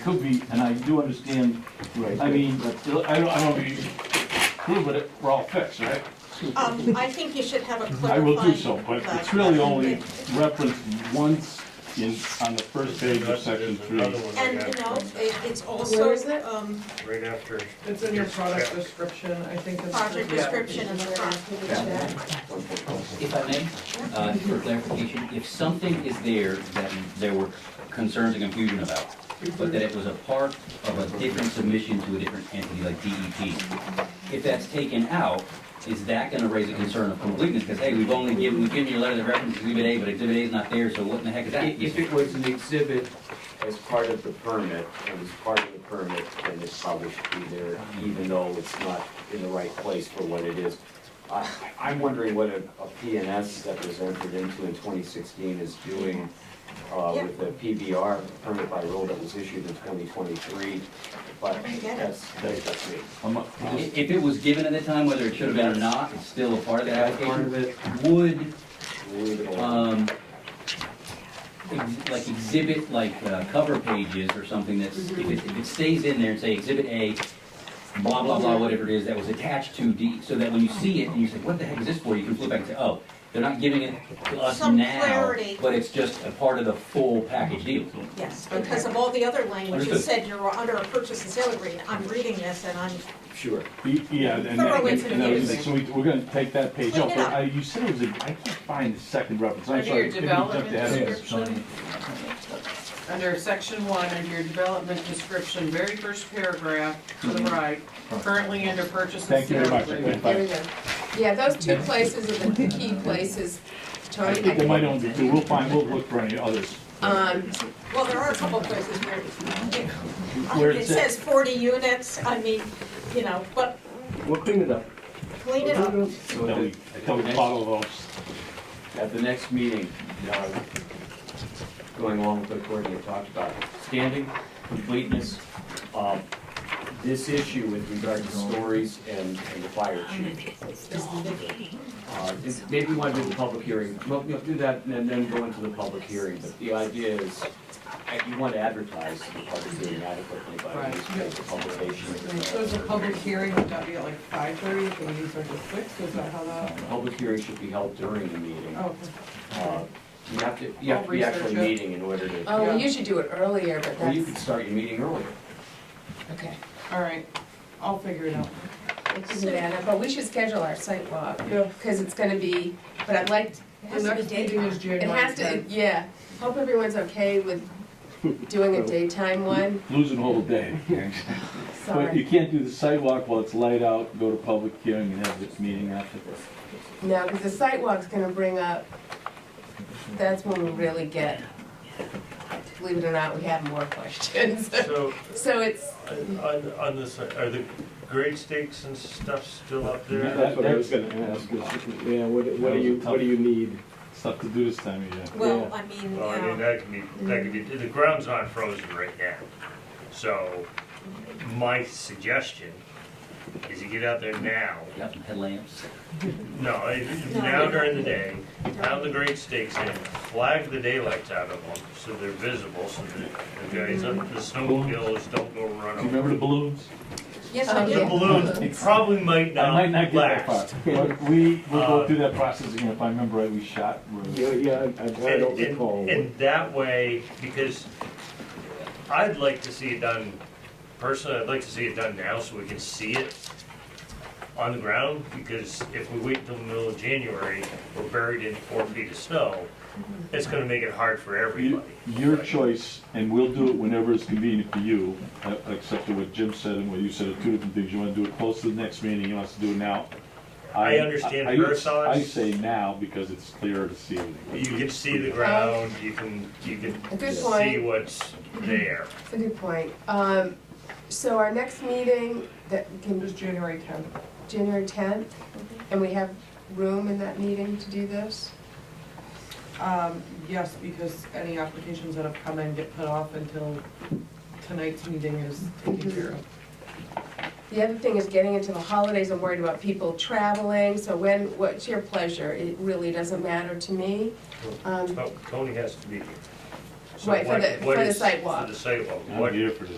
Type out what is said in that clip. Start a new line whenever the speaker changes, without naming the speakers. could be, and I do understand,
Right.
I mean, I don't, I don't be, prove it, we're all fixed, right?
Um, I think you should have a
I
clarifying.
will do so, but it's really only referenced once in, on the first page of
There's
section three.
another one I
And,
got
you know,
from-
it- it's
Where
also,
is it?
um,
Right after.
It's in your product
Yeah.
description, I think it's.
project
yeah.
description in the front.
If I may, uh, for clarification, if something is there that there were concerns and confusion about, but that it was a part of a different submission to a different entity like DEP, if that's taken out, is that gonna raise a concern of completeness? Because, hey, we've only given, we've given you a letter that references Exhibit A, but Exhibit A is not there, so what in the heck is that?
If if it was an exhibit as part of the permit, it was part of the permit, then it probably should be there, even though it's not in the right place for what it is. I- I'm wondering what a a PNS that was entered into in 2016 is doing uh,
Yeah.
with the PBR, permit by rule that was issued in 2023, but
I get it.
that's, that's me.
I'm not-
I- If it was given at the time, whether it should have been or not, it's still a part of the
That's part
application.
of it,
Would
leave it alone.
um, ex- like exhibit, like uh, cover pages or something that's, if it, if it stays in there and say exhibit A, blah, blah, blah, whatever it is that was attached to D, so that when you see it and you say, what the heck is this for? You can flip back and say, oh, they're not giving it to us
Some
now,
clarity.
but it's just a part of the full package deal.
Yes, because of all the other language, you
Understood.
said you're under a purchase and sale agreement. I'm reading this and I'm,
Sure.
Y- Yeah, and, that-
Thoroughly
and that was-
confusing.
so we, we're gonna take that page
Clean
out,
it
but
up.
I, you said it was, a- I can't find the second reference, I'm
Under
sorry.
your
maybe you jumped
development
ahead of us.
description, under section one, under your development description, very first paragraph to the right, currently under purchase and
Mm-hmm. Thank you very
sale
much. I
agreement.
couldn't
There we
find-
go. Yeah, those two places are the key places,
I
Tony.
think they might only be two, we'll find, we'll look for any others.
Um,
well, there are a couple places where it-
Where
it
it's at.
says forty units, I mean, you know, but
We'll clean it up.
clean it up.
So
That we,
the-
that we follow those.
at the next meeting, uh, going along with what Courtney had talked about, standing, completeness, um, this issue with regard to stories and and the fire chief. Uh, this- Maybe we want to do the public hearing, we'll we'll do that and then go into the public hearing, but the idea is, uh, you want to advertise the public hearing adequately by
Right.
newspaper publication.
So is a public hearing, would that be at like five thirty, can we start at six, is that how that?
Uh, The Public hearing should be held during the meeting.
Oh,
Uh, You have to, you have to be actually
Research it.
meeting in order to.
oh, we usually do it earlier, but
Well, you could
that's,
start your meeting earlier.
okay.
all right, I'll figure it out.
We can do that, but we should schedule our site walk,
Yeah.
because it's gonna be, but I'd like,
The next meeting is
it
January
has to,
tenth.
yeah. Hope everyone's okay with doing a daytime one,
Losing a whole day. But you
sorry.
can't do the sidewalk while it's light out, go to public hearing and have this meeting after.
No, because the site walk's gonna bring up, that's when we really get, believe it or not, we have more questions.
So
So it's,
on, on- on this, are the grade stakes and stuff still up there?
That's what I was gonna ask, is, yeah, what, what do you, what do you need?
Stuff to do this time of year.
Well, I mean,
Well, I mean,
yeah,
that can be, that can be, the ground's not frozen right now. So my suggestion is you get out there now.
Yep, headlamps.
No, it- now during the day, pound the grade stakes in, flag the daylights out of them so they're visible, so that the guys, up the snowmobiles don't go run
Do you
over.
remember the balloons?
yes, I
Oh,
The
do.
yeah.
balloons probably might
I might not get
not
that
last.
far. But We, we'll go
Uh,
through that process again, if I remember right, we shot, we
Yeah, yeah, I- I I don't
And- and-
recall. what-
And that way, because I'd like to see it done, personally, I'd like to see it done now so we can see it on the ground, because if we wait till the middle of January, we're buried in four feet of snow, it's gonna make it hard for
You-
everybody.
Your choice, and we'll do it whenever it's convenient for you, uh, except for what Jim said and what you said are two different things. You want to do it close to the next meeting, you want us to do it now.
I understand
I- I-
her side.
I say now because it's clearer to see everything.
You can see the ground, you can, you can
Good
see
point.
what's there.
It's a good point. Um, so our next meeting, that
It
can
was
be
January tenth.
January tenth, and we have room in that meeting to do this?
Um, yes, because any applications that have come in get put off until tonight's meeting is taken care of.
The other thing is getting into the holidays, I'm worried about people traveling, so when, what's your pleasure? It really doesn't matter to me. Um,
Oh, Tony has to be here. So
Wait, for
what-
the-
what
for the
is-
sidewalk.
For the sidewalk,
I'm
what,
here for this.